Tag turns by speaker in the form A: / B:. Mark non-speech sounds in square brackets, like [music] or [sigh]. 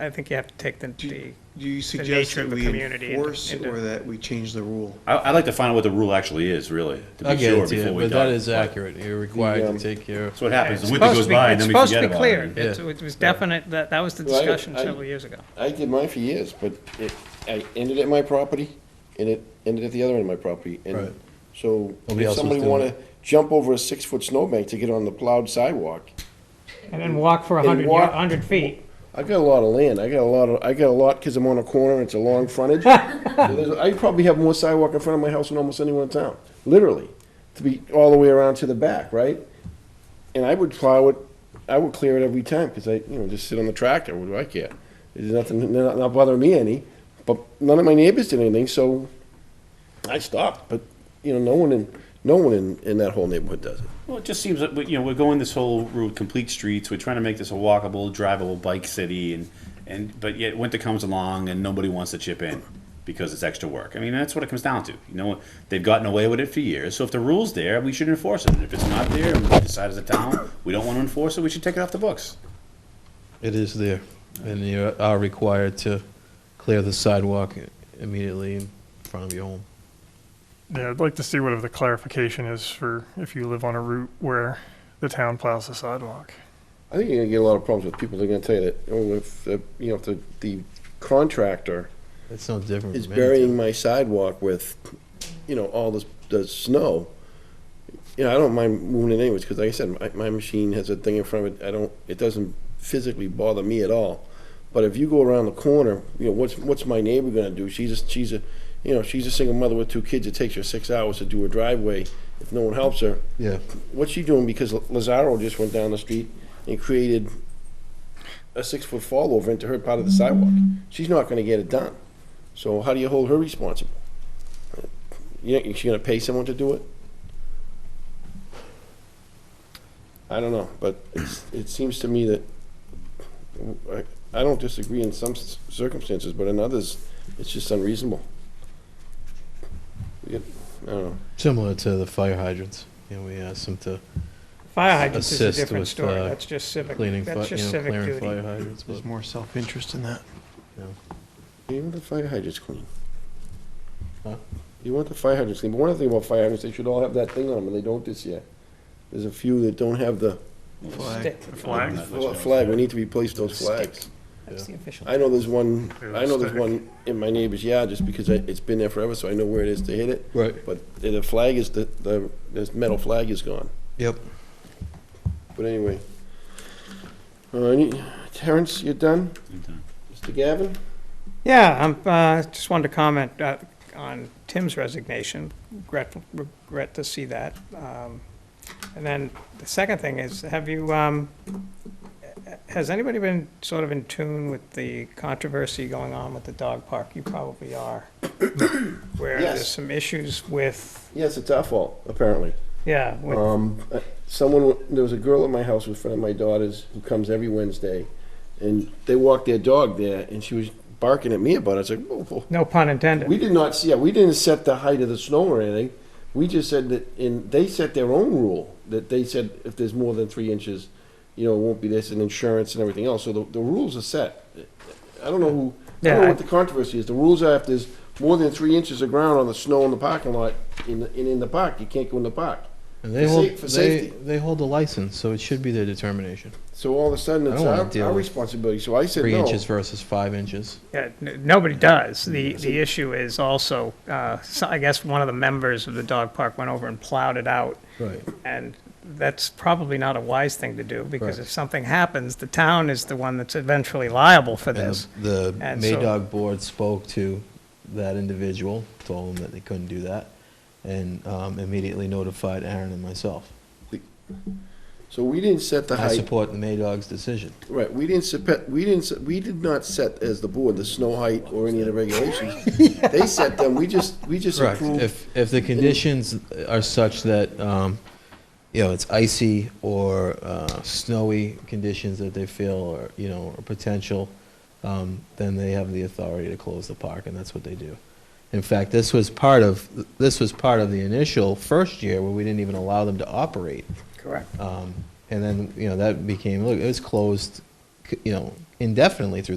A: I think you have to take the, the,
B: Do you suggest
A: nature of
B: that
A: the
B: we
A: community and-
B: enforce
A: and the-
B: or that we change the rule?
C: I, I'd like to find out what the rule actually is, really, to
D: I'll
C: be
D: get
C: sure
D: it to
C: before
D: you,
C: we
D: but
C: talk.
D: that is accurate. You're required
E: um,
D: to take care of.
C: That's what happens,
A: it's
C: the winter
A: supposed
C: goes
A: to be,
C: by and
A: it's
C: then we forget
A: supposed
C: about
A: to
C: it.
A: be clear.
D: Yeah.
A: It's- It was definite, that, that was the
E: Well, I-
A: discussion
E: I-
A: several years ago.
E: I did mine for years, but it, I ended at my property, and it ended at the other end of my property,
D: Right.
E: and so
D: Nobody
E: if
D: else was
E: somebody
D: doing
E: wanna jump over a six-foot snowbank to get on the plowed sidewalk,
A: And then walk for a
E: And
A: hundred,
E: walk-
A: hundred feet.
E: I got a lot of land, I got a lot of, I got a lot, cause I'm on a corner, it's a long frontage. So there's- I probably have more sidewalk in front of my house than almost anyone in town, literally, to be all the way around to the back, right? And I would plow it, I would clear it every time, cause I, you know, just sit on the tractor, what do I care? There's nothing, they're not, not bothering me any, but none of my neighbors did anything, so I stopped, but, you know, no one in, no one in, in that whole neighborhood does it.
C: Well, it just seems that, we- you know, we're going this whole route, complete streets, we're trying to make this a walkable, drivable bike city and, and, but yet winter comes along and nobody wants to chip in because it's extra work. I mean, that's what it comes down to. You know, they've gotten away with it for years, so if the rule's there, we should enforce it. And if it's not there, and we decide as a town, we don't want to enforce it, we should take it off the books.
D: It is there, and you are required to clear the sidewalk immediately in front of your home.
F: Yeah, I'd like to see whatever the clarification is for if you live on a route where the town plows the sidewalk.
E: I think you're gonna get a lot of problems with people, they're gonna tell you that, oh, if, the- you know, if the, the contractor
D: It's no different.
E: is
D: from anything.
E: burying my sidewalk with, you know, all this, the snow. You know, I don't mind moving it anyways, because like I said, my, my machine has a thing in front of it, I don't, it doesn't physically bother me at all. But if you go around the corner, you know, what's, what's my neighbor gonna do? She's a, she's a, you know, she's a single mother with two kids, it takes her six hours to do her driveway if no one helps her.
D: Yeah,
E: What's she doing? Because Lazaro just went down the street and created a six-foot fall over into her part of the sidewalk. She's not gonna get it done. So how do you hold her responsible? You, you she gonna pay someone to do it? I don't know, but it's, it seems to me that, I, I don't disagree in some s- circumstances, but in others, it's just unreasonable. You get- I don't know.
D: similar to the fire hydrants. You know, we asked them to
A: Fire hydrants is a
D: Assist
A: different
D: with,
A: story,
D: uh,
A: that's just civic,
D: cleaning, fi-
A: that's
D: you
A: just
D: know,
A: civic
D: clearing
A: duty.
D: fire hydrants. but-
B: There's more self-interest in that.
E: You want the fire hydrants clean?
D: Huh?
E: You want the fire hydrants clean, but one thing about fire hydrants, they should all have that thing on them, and they don't this year. There's a few that don't have the
B: Flag.
A: Stick.
F: Flag.
E: flag, we need to replace those flags.
A: That's the official.
E: I know there's one, I know there's
F: Stick.
E: one in my neighbor's yard, just because I- it's been there forever, so I know where it is to hit it,
D: Right.
E: but the flag is, the, the, this metal flag is gone.
D: Yep.
E: But anyway. Uh, any, Terrence, you done?
C: I'm done.
E: Mr. Gavin?
A: Yeah, I'm, uh, just wanted to comment, uh, on Tim's resignation, regret, regret to see that. Um, And then the second thing is, have you, um, has anybody been sort of in tune with the controversy going on with the dog park? You probably
E: [coughs]
A: are. Where there's
E: Yes.
A: some issues with,
E: Yes, it's our fault, apparently.
A: yeah, with
E: Um, uh, someone, there was a girl at my house with a friend of my daughter's who comes every Wednesday, and they walk their dog there, and she was barking at me about it. I was like, whoa, whoa.
A: No pun intended.
E: We did not see, yeah, we didn't set the height of the snow or anything. We just said that, and they set their own rule, that they said if there's more than three inches, you know, it won't be this, and insurance and everything else. So the, the rules are set. I don't know who, I don't
A: Yeah,
E: know
A: I-
E: what the controversy is. The rules are if there's more than three inches of ground on the snow in the parking lot, in, the- in, in the park, you can't go in the park.
D: And they
E: For sa-
D: hold
E: for
D: they,
E: safety.
D: they hold a license, so it should be their determination.
E: So all of a sudden,
D: I
E: it's
D: don't wanna
E: our,
D: deal
E: our
D: with
E: responsibility. So I said
D: Three
E: no.
D: inches versus five inches.
A: Yeah, n- nobody does. The, the issue is also, uh, so I guess one of the members of the dog park went over and plowed it out.
D: Right.
A: And that's probably not a wise thing to do, because
D: Correct.
A: if something happens, the town is the one that's eventually liable for
D: And
A: this.
D: the, the
A: And so-
D: Maydog board spoke to that individual, told him that they couldn't do that, and um, immediately notified Aaron and myself.
E: So we didn't set the
D: I
E: height.
D: support the Maydog's decision.
E: Right. We didn't set. We didn't. se- We did not set as the board the snow height or any of
D: [laughs]
E: the regulations. They set them. We just. We just approved.
D: If, if the conditions are such that, um, you know, it's icy or uh, snowy conditions that they feel are, you know, are potential, um, then they have the authority to close the park, and that's what they do. In fact, this was part of, this was part of the initial first year where we didn't even allow them to operate.
A: Correct.
D: Um, And then, you know, that became, look, it was closed, c- you know, indefinitely through